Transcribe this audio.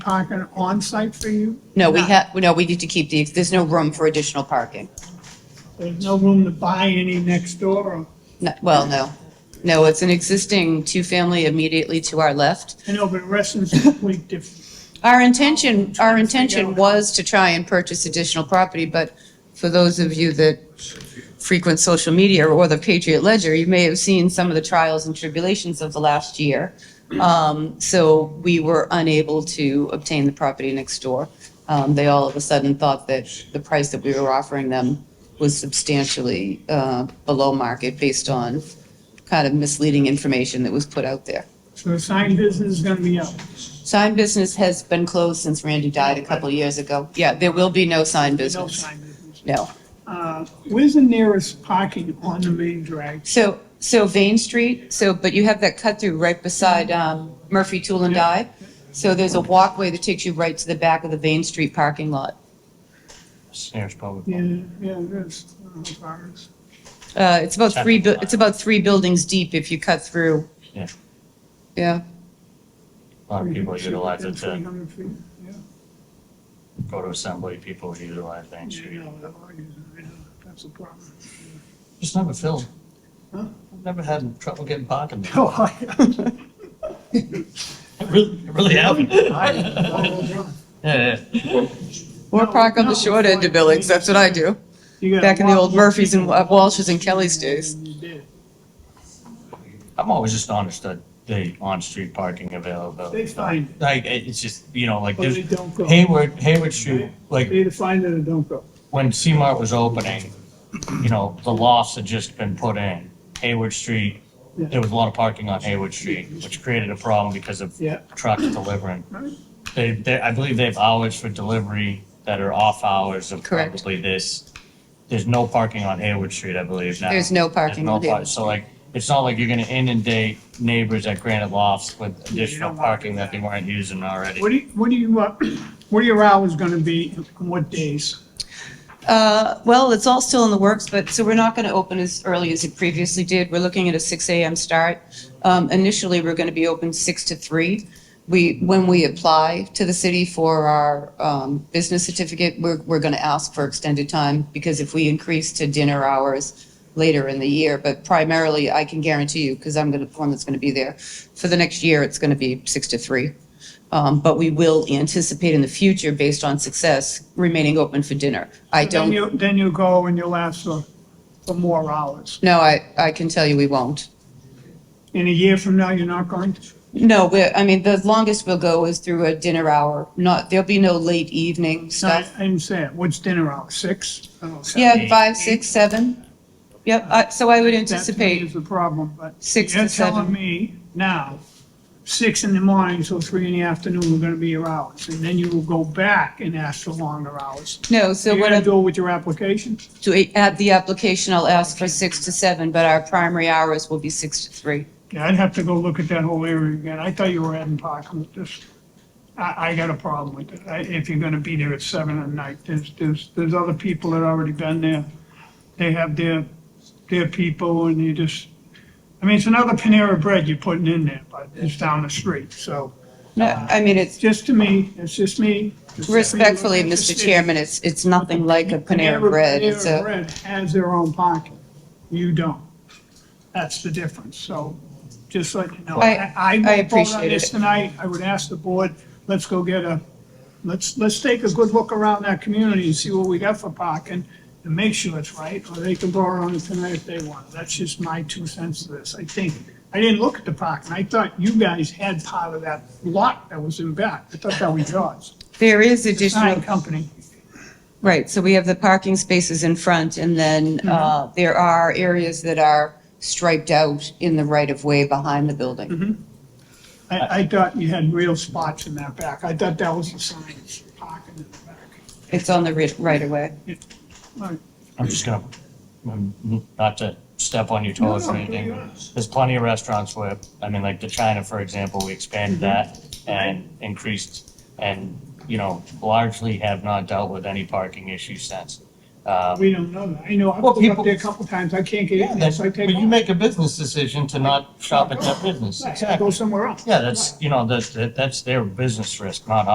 parking on-site for you? No, we have, no, we need to keep the, there's no room for additional parking. There's no room to buy any next door, or, No- Well, no. No, it's an existing two-family immediately to our left. I know, but Reston's a complete different. Our intention, our intention was to try and purchase additional property, but for those of you that frequent social media or the Patriot Ledger, you may have seen some of the trials and tribulations of the last year. Um, So we were unable to obtain the property next door. Um, They all of a sudden thought that the price that we were offering them was substantially uh, below market based on kind of misleading information that was put out there. So the sign business is gonna be up. Sign business has been closed since Randy died a couple of years ago. Yeah, there will be no sign No business. sign business. No. Uh, Where's the nearest parking on the main drag? So, so Vane Street, so, but you have that cut through right beside um, Murphy Tool and Die. So there's a walkway that takes you right to the back of the Vane Street parking lot. Snares Public. Yeah, yeah, there's, I don't know if ours- Uh, It's about three, bu- it's about three buildings deep if you cut through. Yeah. Yeah, A lot of people utilize it Three to hundred feet, yeah. go to assembly, people utilize Main Street. Yeah, no, they're all using it, yeah, That's a problem. Just never filled. Huh? I've Never had trouble getting parking. there. Oh, I- I Really, I really haven't. I- Yeah, yeah. or No, park on no, the short it's end of like- Billings, that's what I do, You gotta back in the walk old more Murphys and people Wa- Walsh's and Kelly's days. than you did. I'm always astonished at the on-street parking availability. They find it, Like, it- it's just, you know, like, but they there's don't go. They Hayward, Hayward Street, like, either find it or don't go. when C-Mart was opening, you know, the lofts had just been put in. Hayward Street, Yeah. there was a lot of parking on Hayward Street, which created a problem because of Yeah. trucks delivering. Right. They, they, I believe they have hours for delivery that are off hours of Correct. probably this. There's no parking on Hayward Street, I believe, now. There's no parking There's on no Hayward par- So like, it's not like you're gonna inundate neighbors at Granite Lofts with additional want parking that they weren't using already. What do you, what do you, uh, what are your hours gonna be, and what days? Uh, Well, it's all still in the works, but, so we're not going to open as early as it previously did. We're looking at a 6 AM start. Um, Initially, we're going to be open 6 to 3. We, when we apply to the city for our um, business certificate, we're, we're going to ask for extended time because if we increase to dinner hours later in the year, but primarily, I can guarantee you, because I'm going to, the one that's going to be there, for the next year, it's going to be 6 to 3. Um, But we will anticipate in the future, based on success, remaining open for dinner. I Then don't. you- Then you go and you'll ask for, for more hours. No, I, I can tell you we won't. In a year from now, you're not going to? No, we're, I mean, the longest we'll go is through a dinner hour, not, there'll be no late evening No, I stuff. I didn't say it. What's dinner hour, six? Oh, seven. Yeah, five, six, seven. Yep, I- so I would That to me anticipate, is the problem, but. Six to You're seven. telling me now, six in the morning till three in the afternoon are gonna be your hours, and then you will go back and ask for longer hours. no, so You're what gonna I'm, do it with your application? to add the application, I'll ask for six to seven, but our primary hours will be six to three. Yeah, I'd have to go look at that whole area again. I thought you were adding parking with this. I, I got a problem with it. I- If you're gonna be there at seven at night, there's, there's, there's other people that already been there. They have their, their people and you just, I mean, it's another Panera Bread you're putting in there, but it's down the street, so. No, I mean, it's Just to me, it's just me. respectfully, Mr. Chairman, it's, it's nothing like a Panera Bread. It's Panera a, Bread has their own parking. You don't. That's the difference. So just like, you know, I, I- I I won't vote on appreciate this it. tonight. I would ask the board, let's go get a, let's, let's take a good look around that community and see what we got for parking and make sure it's right, or they can vote on it tonight if they want. That's just my two cents to this. I think, I didn't look at the parking. I thought you guys had part of that lot that was in back. I thought that was yours. there is Sign additional company. Right, so we have the parking spaces in front, and then uh, there are areas that are striped out in the right-of-way behind the building. I, I thought you had real spots in that back. I thought that was the sign, parking in the back. It's on the ri- right-of-way. Right. I'm just gonna, I'm- not to step on your toes No, or no, anything, you're but not. there's plenty of restaurants where, I mean, like the China, for example, we expanded Mm-hmm. that and increased and, you know, largely have not dealt with any parking issues since. Um, We don't know that. I know, I've Well, been up people- there a couple times. I can't get Yeah, in there, that's, so I but take you off. make a business decision to not shop at that business, Right, I Go exactly. somewhere else. Yeah, that's, you know, that's, that's their business risk, not